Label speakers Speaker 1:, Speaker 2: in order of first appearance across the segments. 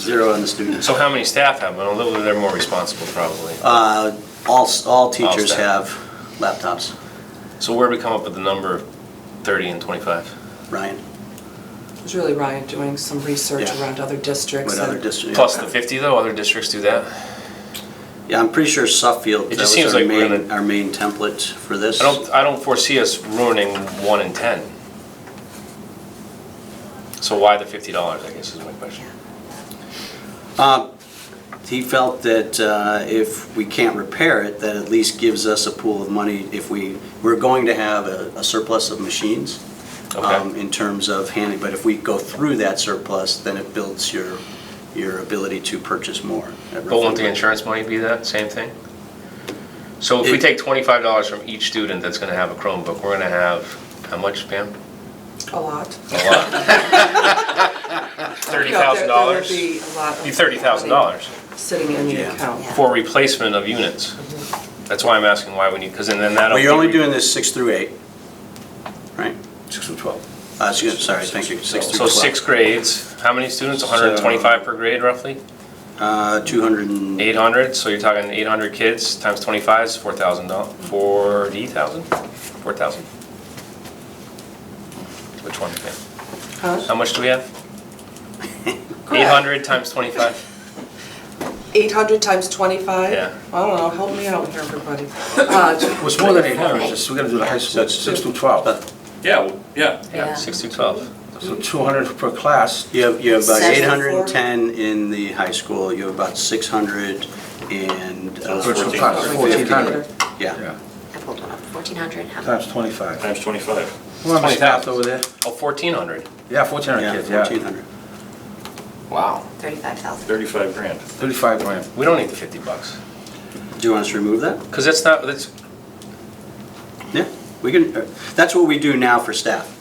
Speaker 1: Zero on the students.
Speaker 2: So how many staff have one? Although they're more responsible probably.
Speaker 1: Uh, All, all teachers
Speaker 2: staff.
Speaker 1: have laptops,
Speaker 2: So where do we come up with the number of 30 and 25?
Speaker 1: Ryan,
Speaker 3: It was really Ryan doing some research
Speaker 1: Yeah.
Speaker 3: around other districts.
Speaker 1: what other
Speaker 3: and-
Speaker 1: districts?
Speaker 2: Plus the 50 though, other districts do that?
Speaker 1: Yeah, I'm pretty sure Suffield,
Speaker 2: It
Speaker 1: that
Speaker 2: just
Speaker 1: was
Speaker 2: seems
Speaker 1: our
Speaker 2: like we're
Speaker 1: main,
Speaker 2: gonna-
Speaker 1: our main template for this.
Speaker 2: I don't, I don't foresee us ruining one in 10. So why the $50, I guess is my question.
Speaker 1: Uh, He felt that uh, if we can't repair it, that at least gives us a pool of money if we, we're going to have a a surplus of machines um,
Speaker 2: Okay.
Speaker 1: in terms of handling, but if we go through that surplus, then it builds your, your ability to purchase more. at
Speaker 2: But won't the
Speaker 1: roughly-
Speaker 2: insurance money be that, same thing? So if we
Speaker 1: It-
Speaker 2: take $25 from each student that's gonna have a Chromebook, we're gonna have, how much, Pam?
Speaker 3: A lot.
Speaker 2: A lot. $30,000?
Speaker 3: There would be a lot of
Speaker 2: Be $30,000.
Speaker 3: money Sitting in the
Speaker 1: Yeah.
Speaker 3: account.
Speaker 2: for replacement of units. That's why I'm asking why we need, because then that'll.
Speaker 1: Well, you're only
Speaker 2: be-
Speaker 1: doing this six through eight, right?
Speaker 4: Six through 12.
Speaker 1: Uh, excuse- Sorry, thank you, six through
Speaker 2: So
Speaker 1: 12.
Speaker 2: six grades, how many students? 125 per grade roughly?
Speaker 1: Uh, 200 and,
Speaker 2: 800, so you're talking 800 kids times 25 is 4,000, doll- 40,000? 4,000. Which one? yeah. How
Speaker 3: Huh?
Speaker 2: much do we have?
Speaker 3: Correct.
Speaker 2: 800 times 25?
Speaker 3: 800 times 25?
Speaker 2: Yeah.
Speaker 3: I don't know, help me out here, everybody. Uh,
Speaker 4: Well, it's more than 800, it's just, we gotta do the high school, it's six through 12.
Speaker 5: Yeah, well, yeah.
Speaker 2: Yeah, 6 to 12.
Speaker 4: So 200 per class,
Speaker 1: you have, you have about
Speaker 6: Seven.
Speaker 1: 810 in the high school, you have about 600 and, uh,
Speaker 4: Virtual
Speaker 1: fourteen-
Speaker 4: class,
Speaker 1: fifteen.
Speaker 4: 1,400.
Speaker 1: yeah.
Speaker 4: yeah,
Speaker 6: I pulled one up, 1,400, how,
Speaker 4: times 25.
Speaker 5: Times 25.
Speaker 4: Well, I'm
Speaker 2: 20,000.
Speaker 4: staffed over there.
Speaker 2: Oh, 1,400.
Speaker 4: Yeah, 1,400
Speaker 1: Yeah,
Speaker 4: kids, yeah.
Speaker 1: 1,400.
Speaker 4: Wow.
Speaker 6: 35,000.
Speaker 5: 35 grand.
Speaker 4: 35 grand.
Speaker 2: We don't need the 50 bucks,
Speaker 1: Do you want us to remove that?
Speaker 2: because that's not, that's,
Speaker 1: Yeah, we can, uh, that's what we do now for staff.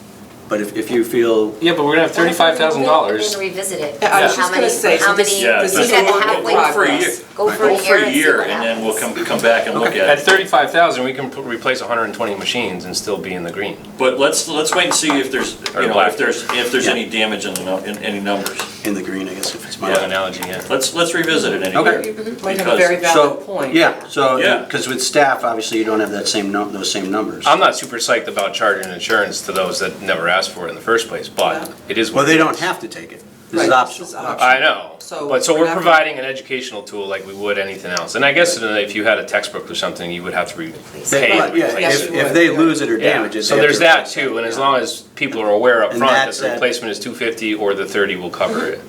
Speaker 1: But if, if you feel,
Speaker 2: yeah, but we're gonna have
Speaker 6: We're going to revisit it.
Speaker 3: Yeah, I was just
Speaker 6: How
Speaker 3: gonna
Speaker 6: many-
Speaker 3: say, so
Speaker 6: How
Speaker 3: this-
Speaker 6: many,
Speaker 5: Yeah,
Speaker 3: this
Speaker 6: we
Speaker 3: is
Speaker 6: got
Speaker 3: a work
Speaker 6: to
Speaker 3: in
Speaker 6: halfway.
Speaker 5: Go for a year.
Speaker 6: Go for
Speaker 5: Go
Speaker 6: a
Speaker 5: for
Speaker 6: year
Speaker 5: a
Speaker 6: and see
Speaker 5: year,
Speaker 6: what
Speaker 5: and then we'll
Speaker 6: happens.
Speaker 5: come, come back and look
Speaker 2: At
Speaker 5: at it.
Speaker 2: thirty-five thousand, we can put- replace hundred and twenty machines and still be in the green.
Speaker 5: But let's, let's wait and see if there's,
Speaker 2: Or
Speaker 5: you know,
Speaker 2: black.
Speaker 5: if there's, if there's
Speaker 1: Yeah.
Speaker 5: any damage in the, nu- in any numbers.
Speaker 1: in the green, I guess if it's my.
Speaker 2: By that analogy, yeah.
Speaker 5: Let's, let's revisit it in a
Speaker 1: Okay.
Speaker 5: year.
Speaker 3: You
Speaker 6: Mm-hmm.
Speaker 3: might have a very
Speaker 5: Because-
Speaker 3: valid point.
Speaker 1: So, yeah, so,
Speaker 5: Yeah.
Speaker 1: because with staff, obviously, you don't have that same, num- those same numbers.
Speaker 2: I'm not super psyched about charging insurance to those that never asked for it in the first place, but
Speaker 3: Yeah.
Speaker 2: it is what.
Speaker 1: Well, they
Speaker 2: it
Speaker 1: don't
Speaker 2: is.
Speaker 1: have to take it. This is
Speaker 3: Right, this is
Speaker 1: optional.
Speaker 3: optional.
Speaker 2: I know,
Speaker 3: So
Speaker 2: but so
Speaker 3: we're
Speaker 2: we're
Speaker 3: not-
Speaker 2: providing an educational tool like we would anything else. And I guess uh, if you had a textbook or something, you would have to re- pay.
Speaker 1: But,
Speaker 2: to
Speaker 1: yeah,
Speaker 2: replace
Speaker 3: Yes,
Speaker 1: if,
Speaker 2: it.
Speaker 3: you
Speaker 1: if
Speaker 3: would,
Speaker 1: they
Speaker 3: yeah.
Speaker 1: lose it or
Speaker 2: Yeah.
Speaker 1: damage it.
Speaker 2: So
Speaker 1: they have
Speaker 2: there's
Speaker 1: to
Speaker 2: that
Speaker 1: replace it.
Speaker 2: too, and as long as people are aware up
Speaker 1: And
Speaker 2: front that
Speaker 1: that's
Speaker 2: the
Speaker 1: at-
Speaker 2: replacement is two fifty or the thirty will cover it,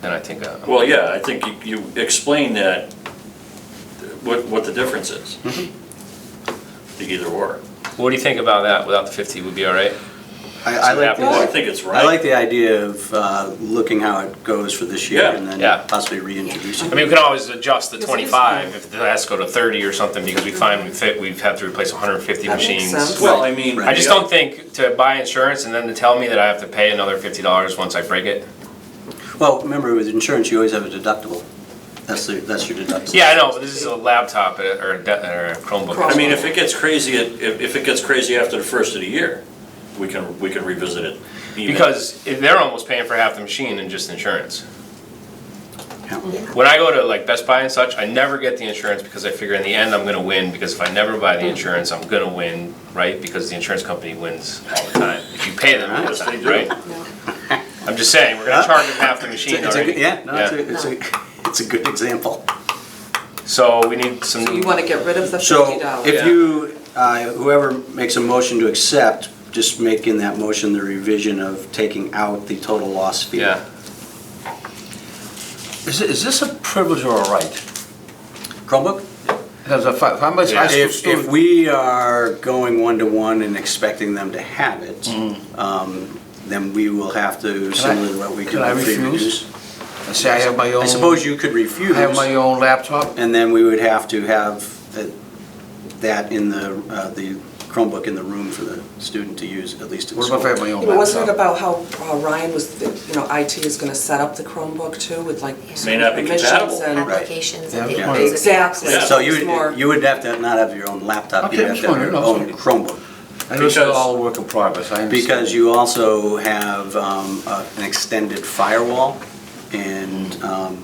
Speaker 2: then I think, uh,
Speaker 5: Well, yeah, I think you you explain that, what, what the difference is.
Speaker 2: Mm-hmm.
Speaker 5: The either or.
Speaker 2: what do you think about that? Without the fifty, would be all right?
Speaker 1: I, I like
Speaker 2: Yeah.
Speaker 5: I
Speaker 1: the,
Speaker 5: think it's right.
Speaker 1: I like the idea of, uh, looking how it goes for this year
Speaker 5: Yeah.
Speaker 1: and
Speaker 2: Yeah.
Speaker 1: then possibly reintroducing
Speaker 2: I
Speaker 1: it.
Speaker 2: mean, we can always adjust the
Speaker 3: Yes, it is
Speaker 2: 25 if the ask go to 30 or something, because we find we fit, we've had to replace 150
Speaker 3: That makes
Speaker 2: machines.
Speaker 3: sense.
Speaker 5: Well, I mean.
Speaker 2: I just don't think to buy insurance and then to tell me that I have to pay another $50 once I break it.
Speaker 1: Well, remember with insurance, you always have a deductible. That's the, that's your deductible.
Speaker 2: Yeah, I know, but this is a laptop uh, or a de- or a Chromebook.
Speaker 5: I mean, if it gets crazy, at- if, if it gets crazy after the first of the year, we can, we can revisit it. even-
Speaker 2: Because if they're almost paying for half the machine in just insurance.
Speaker 1: Yeah.
Speaker 2: When I go to like Best Buy and such, I never get the insurance because I figure in the end I'm gonna win, because if I never buy the insurance, I'm gonna win, right? Because the insurance company wins all the time, if you pay them all the
Speaker 5: Yes, they
Speaker 2: time,
Speaker 5: do.
Speaker 2: right? I'm just saying, we're gonna charge them half the machine
Speaker 1: It's a good-
Speaker 2: already.
Speaker 1: Yeah, no, it's a, it's a, it's a good example.
Speaker 2: So we need some,
Speaker 3: So you want to get rid of the
Speaker 1: So
Speaker 3: $50?
Speaker 1: if you, uh, whoever makes a motion to accept, just make in that motion the revision of taking out the total loss fee.
Speaker 2: yeah,
Speaker 4: Is it- is this a privilege or a right?
Speaker 1: Chromebook?
Speaker 4: Because if I- if I'm a high school
Speaker 1: If, if
Speaker 4: student,
Speaker 1: we are going one-to-one and expecting them to have it, um, then we will have to, similar to what we do
Speaker 4: Mm-hmm. can I
Speaker 1: with free and
Speaker 4: refuse?
Speaker 1: reduced.
Speaker 4: and say I have my own,
Speaker 1: I suppose you could refuse,
Speaker 4: I have my own laptop,
Speaker 1: and then we would have to have that- that in the, uh, the Chromebook in the room for the student to use, at least at
Speaker 4: what if I have
Speaker 1: school.
Speaker 4: my own
Speaker 3: Yeah, but Wasn't it
Speaker 4: laptop?
Speaker 3: about how uh, Ryan was, you know, IT is going to set up the Chromebook too with like
Speaker 5: May not be
Speaker 3: permissions
Speaker 5: compatible.
Speaker 3: and-
Speaker 1: Right.
Speaker 6: Applications. and
Speaker 4: Yeah,
Speaker 6: the-
Speaker 4: yeah.
Speaker 3: Exactly.
Speaker 5: Yeah.
Speaker 1: So
Speaker 3: It's
Speaker 1: you,
Speaker 3: more-
Speaker 1: would- you would have to not have your own laptop, you'd
Speaker 4: Okay, I'm
Speaker 1: have to have
Speaker 4: sorry,
Speaker 1: your
Speaker 4: no,
Speaker 1: own Chromebook.
Speaker 4: I know it's
Speaker 5: Because-
Speaker 4: all work in progress, I understand.
Speaker 1: Because you also have um, a- an extended firewall
Speaker 4: Mm.
Speaker 1: And um,